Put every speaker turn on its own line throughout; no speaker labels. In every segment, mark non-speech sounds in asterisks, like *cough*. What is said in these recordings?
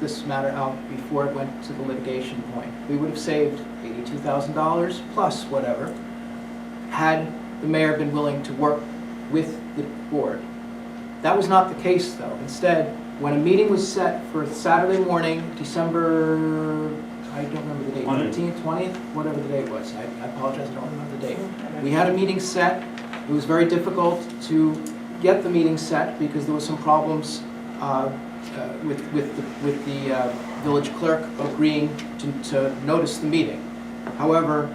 this matter out before it went to the litigation point. We would have saved eighty-two thousand dollars plus whatever, had the mayor been willing to work with the board. That was not the case, though. Instead, when a meeting was set for Saturday morning, December, I don't remember the date,
Twentieth.
fifteenth, twentieth, whatever the date was, I I apologize, I don't remember the date. We had a meeting set, it was very difficult to get the meeting set because there were some problems uh, uh, with, with, the- with the uh, village clerk agreeing to, to notice the meeting. However,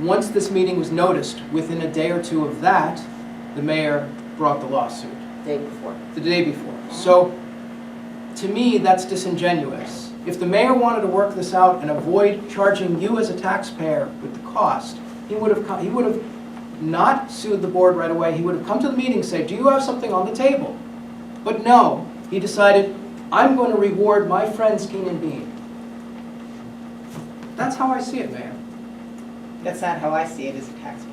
once this meeting was noticed, within a day or two of that, the mayor brought the lawsuit
Day before.
the day before. So, to me, that's disingenuous. If the mayor wanted to work this out and avoid charging you as a taxpayer with the cost, he would have, co- he would have not sued the board right away, he would have come to the meeting and say, do you have something on the table? But no, he decided, I'm going to reward my friends Keenan Bean. That's how I see it, Mayor.
That's not how I see it as a taxpayer.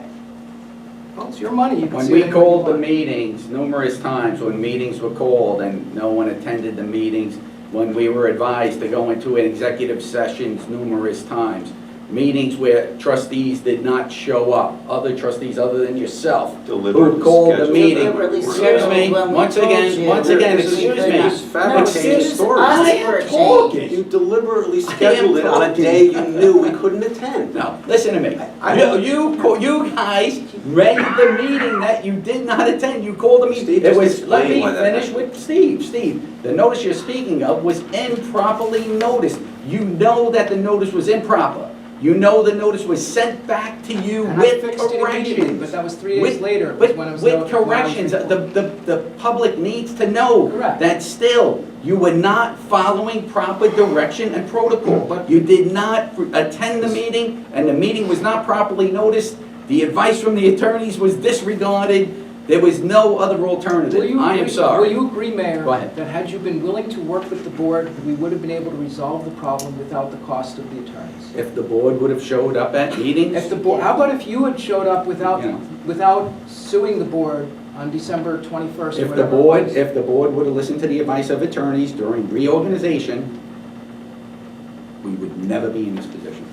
Well, it's your money, you can
When
see it.
we called the meetings numerous times, when meetings were called and no one attended the meetings, when we were advised to go into executive sessions numerous times, meetings where trustees did not show up, other trustees other than yourself,
Deliberately
who called the
scheduled.
meeting.
Deliberately
Excuse me,
scheduled when we
once
told
again,
you.
once again,
This is-
excuse me.
this is fabricated
Excuse-
stories.
I am
Us for a change.
talking.
You deliberately scheduled it on a
talking.
day you knew we couldn't attend.
No, listen to me.
I-
You, you co- you guys read the meeting that you did not attend, you called the meeting.
Steve,
It
just
was, let
explain
me
why that
finish with Steve, Steve. The notice you're speaking of was improperly noticed. You know that the notice was improper. You know the notice was sent back to you
And I
with
fixed it immediately, But
corrections.
that was three days
With-
later, was
With,
when it was.
with
noted- when I was
corrections,
informed.
the, the, the public needs to know
Correct.
that still, you were not following proper direction and protocol.
But-
You did not attend the meeting, and the meeting was not properly noticed. The advice from the attorneys was disregarded. There was no other
Will
alternative.
you
I am
agree- Will
sorry.
you agree, Mayor?
Go ahead.
That had you been willing to work with the board, we would have been able to resolve the problem without the cost of the attorneys?
If the board would have showed up at
If
meetings,
the board, how about if you had showed up without,
Yeah.
without suing the board on December 21st? or
if the
whatever it
board,
was?
if the board would have listened to the advice of attorneys during reorganization, we would never be in this position.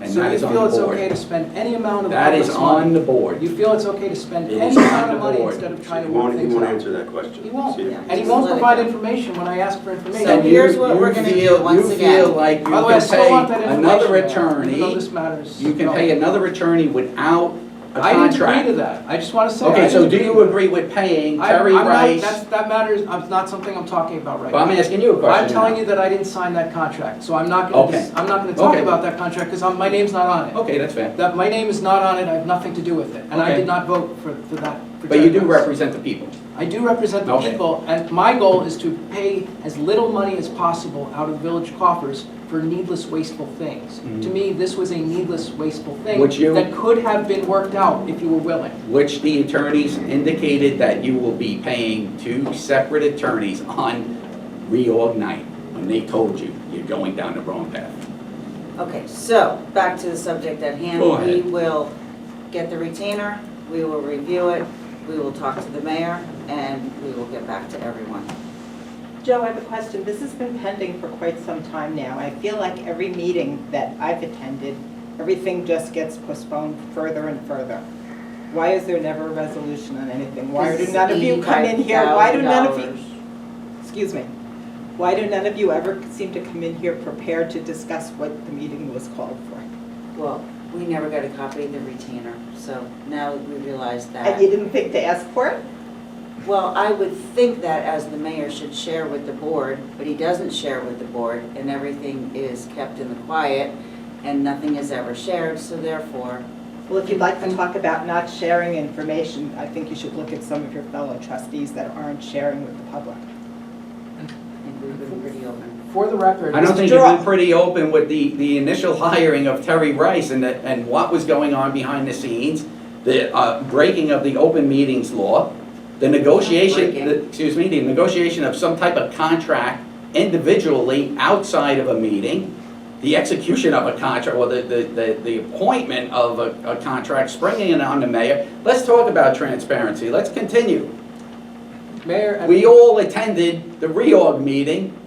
And
So
that
you
is on
feel
the
it's okay
board.
to spend any amount of
That
money?
is on the board.
You feel it's okay to spend
It
any
is on
amount of
the
money
board.
instead of trying
He
to work
won't, he
things
won't
out?
answer that question.
He won't,
See ya.
yeah.
And he
Just
won't
let it
provide
go.
information when I ask for information.
So
And you-
here's what
you
we're gonna do
feel-
once
You
again.
feel like you
By the way, I
can
still want that
pay
information.
another
Mayor, Even though
attorney,
this matters.
you can pay another attorney without a
I didn't agree to
contract.
that. I just want to say. I
Okay, so
didn't
do
agree
you
with that.
agree with paying
I-
Terry
I'm not-
Rice?
that's- That matters, It's not something I'm talking about right
Well, I'm
now.
asking you a question.
I'm telling you that I didn't sign that contract, so I'm not gonna, dis-
Okay.
I'm not gonna talk
Okay.
about that contract, because my name's not on it.
Okay, that's fair.
That, my name is not on it, I have nothing to do with it, and I
Okay.
did not vote for, for that. for
But you do
Jerry Rice.
represent the people.
I do represent the
Okay.
people, and my goal is to pay as little money as possible out of village coffers for needless wasteful things. To
Mhm.
me, this was a needless wasteful thing.
Would you-
That could have been worked out if you were willing.
which the attorneys indicated that you will be paying two separate attorneys on reorg night, when they told you you're going down the wrong path.
Okay, so, back to the subject at hand.
Go ahead.
We will get the retainer, we will review it, we will talk to the mayor, and we will get back to everyone.
Joe, I have a question. This has been pending for quite some time now. I feel like every meeting that I've attended, everything just gets postponed further and further. Why is there never a resolution on anything? Why do none of you come in here? Why do none of you, excuse me, why do none of you ever seem to come in here prepared to discuss what the meeting was called for?
Well, we never got a copy of the retainer, so now we realize
And
Uh,
you
that.
didn't think to ask for it?
Well, I would think that as the mayor should share with the board, but he doesn't share with the board, and everything is kept in the quiet, and nothing is ever shared, so therefore,
Well, if you'd like to talk about not sharing information, I think you should look at some of your fellow trustees that aren't sharing with the public.
I think we've been pretty open.
For the record.
I don't think you've
Mr. Gerard.
been pretty open with the, the initial *laughs* hiring of Terry Rice and, the- and what was going on behind the scenes, the uh, breaking of the open meetings law, the negotiation,
Breaking.
the- excuse me, the negotiation of some type of contract individually outside of a meeting, the execution of a contract, or the, the, the- the appointment of a, a contract, springing it on the mayor. Let's talk about transparency, let's continue.
Mayor. I
We all attended the reorg meeting